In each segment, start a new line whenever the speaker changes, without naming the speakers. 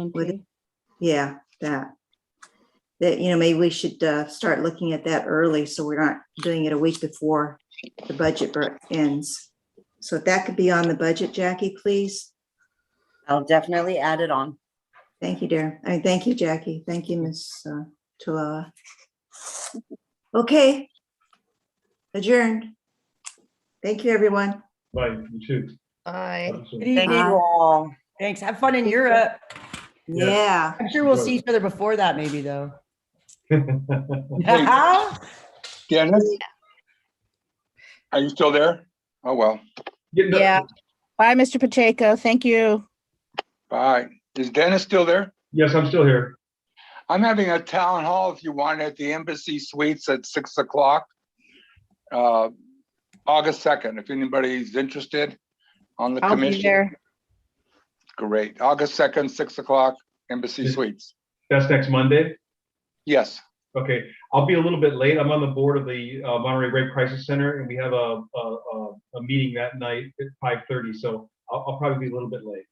PNP.
Yeah, that. That, you know, maybe we should uh, start looking at that early, so we're not doing it a week before the budget bur- ends. So if that could be on the budget, Jackie, please.
I'll definitely add it on.
Thank you, dear. I mean, thank you, Jackie. Thank you, Ms. uh, Tulowa. Okay. Adjourned. Thank you, everyone.
Right, you too.
Bye.
Absolutely.
Good
Thank you
evening.
all.
Thanks. Have fun in Europe.
Yeah.
Yeah,
I'm sure we'll see each other before that maybe though.
Hey, Dennis? Are you still there? Oh, well,
Yeah, no,
Yeah. Bye, Mr. Pacheco. Thank you.
bye. Is Dennis still there?
Yes, I'm still here.
I'm having a town hall, if you want, at the Embassy Suites at six o'clock. uh, August second, if anybody's interested on the
I'll be
commission.
there.
Great, August second, six o'clock, Embassy
Yes.
Suites.
That's next Monday.
Yes,
Okay, I'll be a little bit late. I'm on the board of the uh, Monterey Rape Crisis Center, and we have a, a, a, a meeting that night at five thirty, so I'll, I'll probably be a little bit late.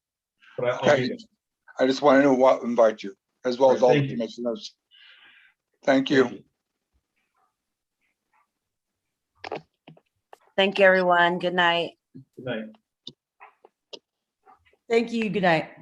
But I- I'll be
Okay.
there.
I just wanted to wa- invite you, as well as all
Thank
the
you.
commissioners. Thank you.
Thank you, everyone. Good night.
Good night.
Thank you. Good night.